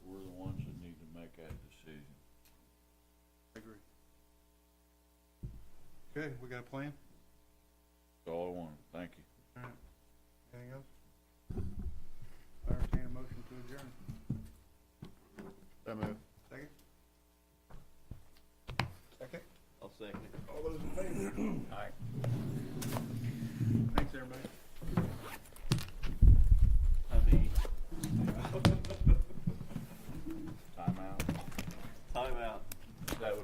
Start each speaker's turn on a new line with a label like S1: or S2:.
S1: Okay, we got a plan?
S2: That's all I wanted, thank you.
S1: Alright, anything else? I entertain a motion to adjourn.
S3: So move.
S1: Second? Second.
S3: I'll second it.
S1: All those in favor?